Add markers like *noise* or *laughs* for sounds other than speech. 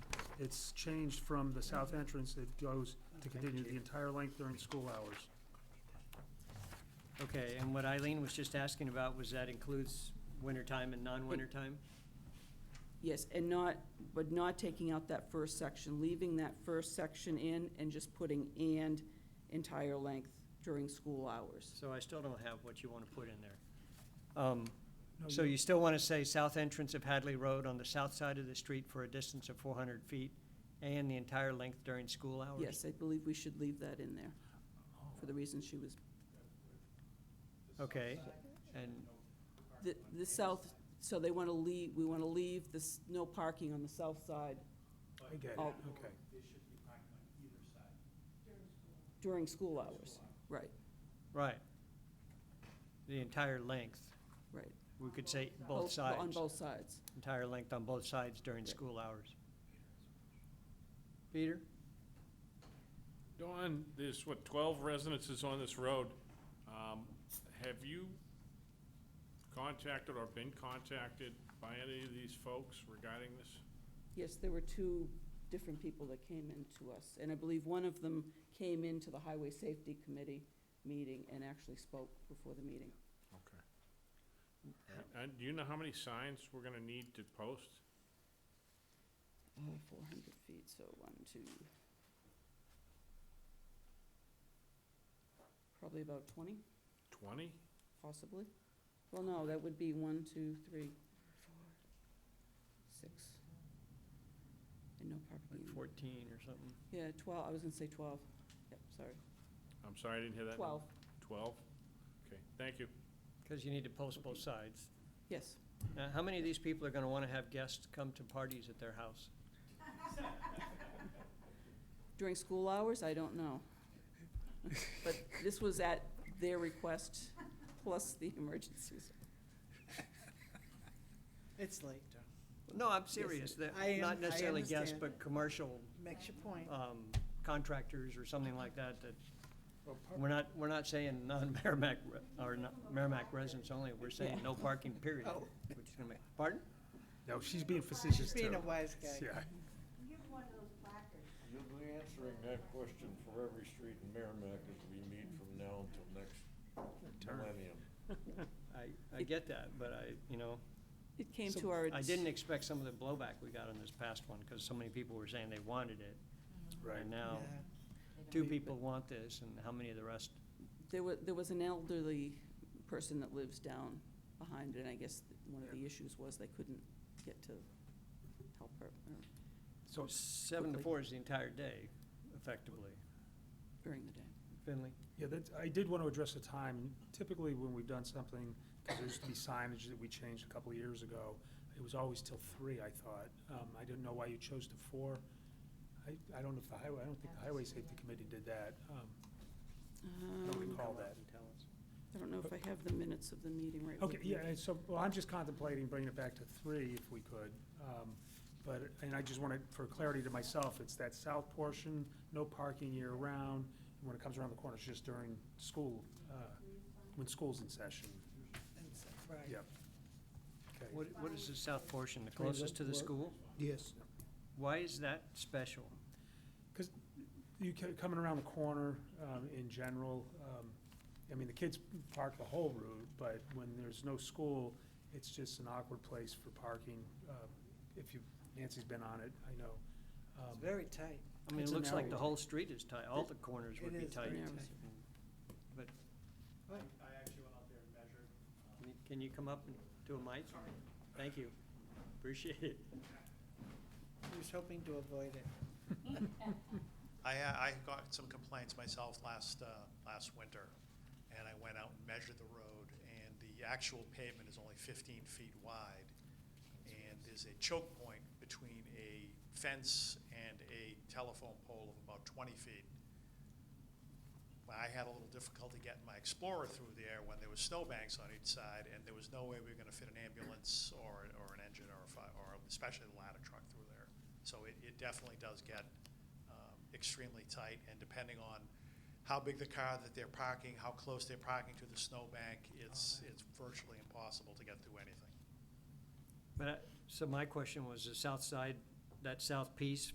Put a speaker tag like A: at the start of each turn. A: It's changed from the south entrance, it goes to continue the entire length during school hours.
B: Okay, and what Eileen was just asking about was that includes wintertime and non-wintertime?
C: Yes, and not, but not taking out that first section, leaving that first section in and just putting "and" entire length during school hours.
B: So I still don't have what you want to put in there. Um,
A: Oh,
B: So you still want to say south entrance of Hadley Road on the south side of the street for a distance of 400 feet and the entire length during school hours?
C: Yes, I believe we should leave that in there for the reason she was,
B: Okay, and,
C: the, the south, so they want to leave, we want to leave this, no parking on the south side
A: I get it,
C: Oh.
A: okay.
D: They should be parking on either side.
C: during school hours. Right,
B: right. The entire length,
C: right.
B: we could say both
C: On
B: sides,
C: both sides.
B: entire length on both sides during school hours. Peter?
E: Don, there's what, 12 residences on this road. Um, Have you contacted or been contacted by any of these folks regarding this?
C: Yes, there were two different people that came in to us, and I believe one of them came into the Highway Safety Committee meeting and actually spoke before the meeting.
E: Okay. And do you know how many signs we're going to need to post?
C: Four hundred feet, so one, two. Probably about twenty,
E: 20?
C: possibly. Well, no, that would be one, two, three, four, six. And no
B: Like
C: parking.
B: 14 or something?
C: Yeah, twelve, I was gonna say twelve. Yep, sorry,
E: I'm sorry, I didn't hear that.
C: twelve,
E: 12? Okay, thank you.
B: Because you need to post both sides.
C: yes.
B: Now, how many of these people are going to want to have guests come to parties at their house?
C: During school hours, I don't know. But this was at their request, plus the emergencies.
F: It's late, Don.
B: No, I'm serious. They're
F: I am-
B: Not
F: I
B: necessarily guests,
F: understand.
B: but commercial
F: Makes your point.
B: um, contractors or something like that, that, we're not, we're not saying *laughs* non-Merrimack, re- or not- Merrimack residents only. We're saying no parking, period.
F: Oh.
B: Which is going to make, pardon?
A: No, she's being facetious too.
F: Being a wise guy.
A: Yeah.
G: You have one of those placards.
H: You'll be answering that question for every street in Merrimack as we meet from now until next millennium.
B: I, I get that, but I, you know.
C: It came to our.
B: I didn't expect some of the blowback we got on this past one, because so many people were saying they wanted it.
A: Right.
B: And now,
F: Yeah.
B: two people want this, and how many of the rest
C: There was, there was an elderly person that lives down behind, it, and I guess one of the issues was they couldn't get to help her uh, or
B: So seven to
C: quickly.
B: four is the entire day, effectively.
C: during the day.
B: Finley?
A: Yeah, that, I did want to address the time. Typically, when we've done something, because there used to be signage that we changed a couple of years ago, it was always till three, I thought. Um, I didn't know why you chose to four. I, I don't know if the highway, I don't think the Highway Safety Committee did that. Um, I don't recall that.
C: I don't know if I have the minutes of the meeting right with
A: Okay,
C: me.
A: yeah, and so, well, I'm just contemplating bringing it back to three if we could. Um, But, and I just wanted, for clarity to myself, it's that south portion, no parking year-round. And when it comes around the corner, it's just during school, uh, when school's in session.
F: And so- Right.
A: Yep. Okay.
B: What, what is the south portion, the closest to the school?
I: Yes.
B: Why is that special?
A: Because you, ca- coming around the corner um, in general, um, I mean, the kids park the whole route, but when there's no school, it's just an awkward place for parking. Uh, If you, Nancy's been on it, I know.
F: It's
A: Um,
F: very tight.
B: I mean, it
A: It's a
B: looks like the
A: narrow-
B: whole street is tight, all the corners would
F: It
B: be
F: is very
B: tight.
C: tight.
B: But,
D: I I actually went out there and measured. um,
B: can you- can you come up and do a mic? Thank you, appreciate it.
F: He was hoping to avoid it.
D: I, uh, I got some complaints myself last, uh, last winter, and I went out and measured the road, and the actual pavement is only 15 feet wide, and there's a choke point between a fence and a telephone pole of about 20 feet. Well, I had a little difficulty getting my Explorer through there when there was snowbanks on each side, and there was no way we were gonna fit an ambulance or, or an engine or a fi, or especially a ladder truck through there. So it, it definitely does get um, extremely tight, and depending on how big the car that they're parking, how close they're parking to the snowbank, it's, it's virtually impossible to get through anything.
B: But, I- so my question was, the south side, that south piece